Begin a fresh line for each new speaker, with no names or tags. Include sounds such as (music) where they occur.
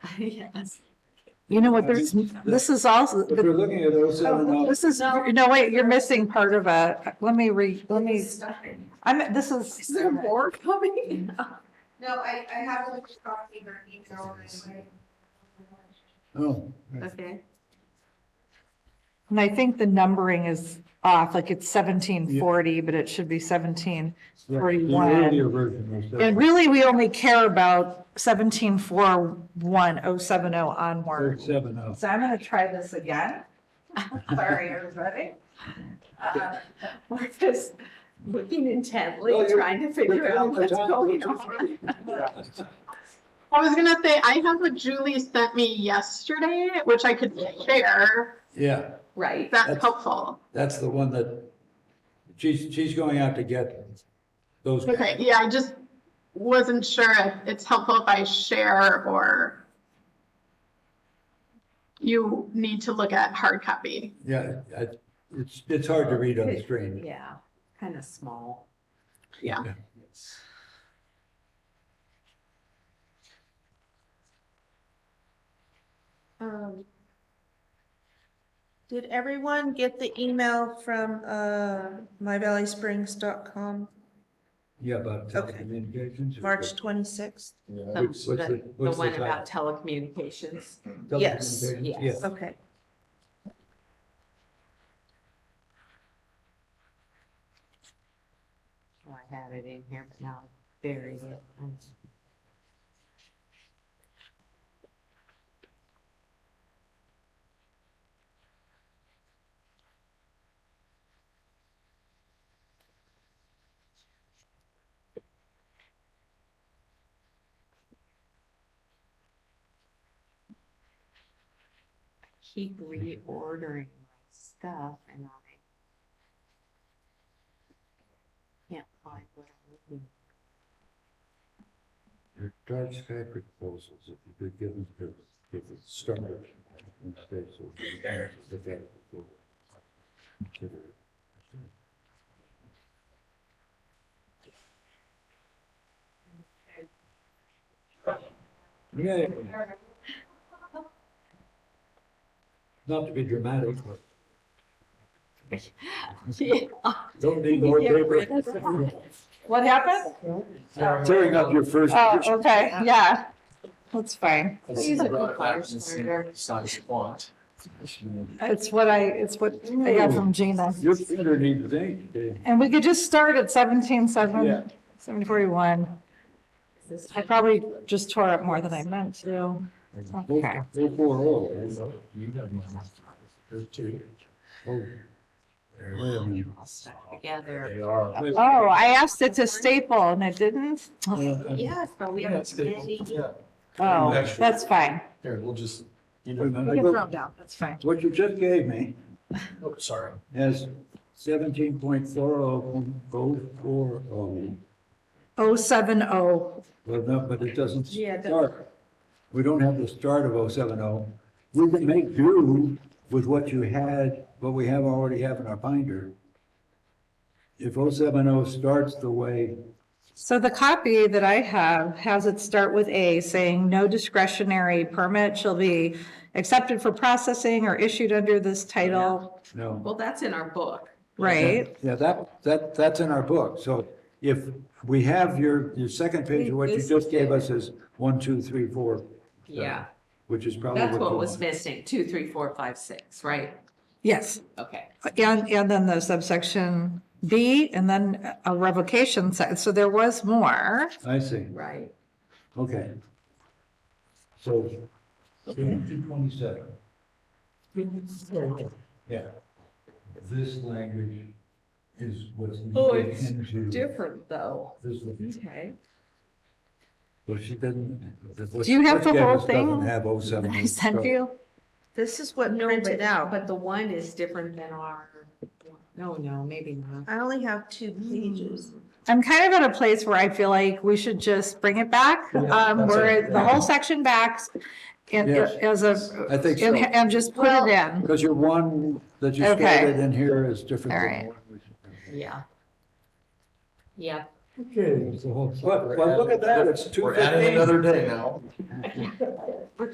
(laughs) Yes.
You know what, there's, this is also,
If you're looking at those seven up,
Oh, this is, no, wait, you're missing part of a, let me re, let me, I'm, this
Is
is,
there more coming?
No, I, I have a little copy of her email. anyway.
oh,
Okay.
and I think the numbering is off, like it's seventeen forty, but it should be seventeen.
yeah, the
41.
earlier version was
And
seven,
really, we only care about seventeen four one oh seven oh
or
onward.
seven up.
So I'm gonna try this (laughs) again. Sorry, everybody. Uh,
We're just looking intently,
Well, you're-
trying to figure out what's going on.
I was gonna say, I have what Julie sent me yesterday, which I could share.
Yeah,
Right.
That's
That's-
helpful.
that's the one that, she's, she's going out to get those.
Okay, yeah, I just wasn't sure if it's helpful if I share or you need to look at hard copy.
Yeah, I, it's, it's hard to read on the screen.
Yeah, kind of small.
Yeah.
Um,
Did everyone get the email from, uh, myvalleysprings.com,
Yeah, uh, about
Okay.
telecommunications. or-
March twenty-sixth?
The
What's- what's the-
the
what's the
one about telecommunications.
Yes,
Telecommunications,
yes.
yeah.
Okay.
Oh, I had it in here, but now I buried it. Um, Keep reordering my stuff and I can't find what I'm looking
Your dark sky proposals, if you could give them to, give it started. instead, so we can look at it before we consider it. Yeah. Not to be dramatic, but don't need more
Get rid of
paper.
What happened?
Tearing up your first.
Oh, okay, yeah, that's fine.
He's a good fire starter.
It's what I, it's what I got from Gina.
Your finger needs ink, Dave.
And we could just start at seventeen
Yeah.
seven, seven forty-one.
This is-
I probably just tore up more than I meant to. Okay.
Four, four, oh.
There's two.
Oh, Wait a minute.
All stuck together.
They are.
Wait,
Oh, I asked it to staple and it didn't?
Yeah,
Yes, but we
Yeah,
are
it's stable.
busy.
Yeah.
Oh, that's fine.
Here, we'll just, you
wait a
know,
minute.
You
I
can throw
go-
them down, that's fine.
What you just gave me
oh, sorry.
has seventeen point four oh, oh, four oh,
Oh, seven oh,
well, no, but it doesn't
Yeah, it doesn't.
start. We don't have the start of oh seven oh. We can make do with what you had, what we have already have in our binder. If oh seven oh starts the way,
so the copy that I have has it start with A saying no discretionary permit shall be accepted for processing or issued under this title,
no.
Well, that's in our book.
right?
Yeah, that, that, that's in our book. So if we have your, your second page of what you just gave us is one, two, three, four,
Yeah,
which is probably
that's
what
what
you
was
want.
missing, two, three, four, five, six, right?
Yes,
Okay.
and, and then the subsection B and then a revocation, se- so there was more.
I see.
Right.
Okay. So, two twenty-seven. Yeah. This language is what's.
Oh, it's
into
Different though.
this language.
Okay.
Well, she doesn't. what-
Do you have
what
the
gave
whole
us doesn't
thing
Have oh seven.
I sent you?
This is what
No,
printed
but,
out.
but the one is different than our, no, no, maybe not.
I only have two
Mm.
pages.
I'm kind of at a place where I feel like we should just bring it back,
Yeah,
um,
that's
where
it.
the whole section back and
Yes.
as a.
I think
and-
so.
And just put it
Well-
in.
Because your one that you
Okay.
started in here is different
All
than
right.
the one we.
Yeah. Yeah.
Okay. Well, well, look at that, it's two
We're adding
fifteen. (laughs)
another day now.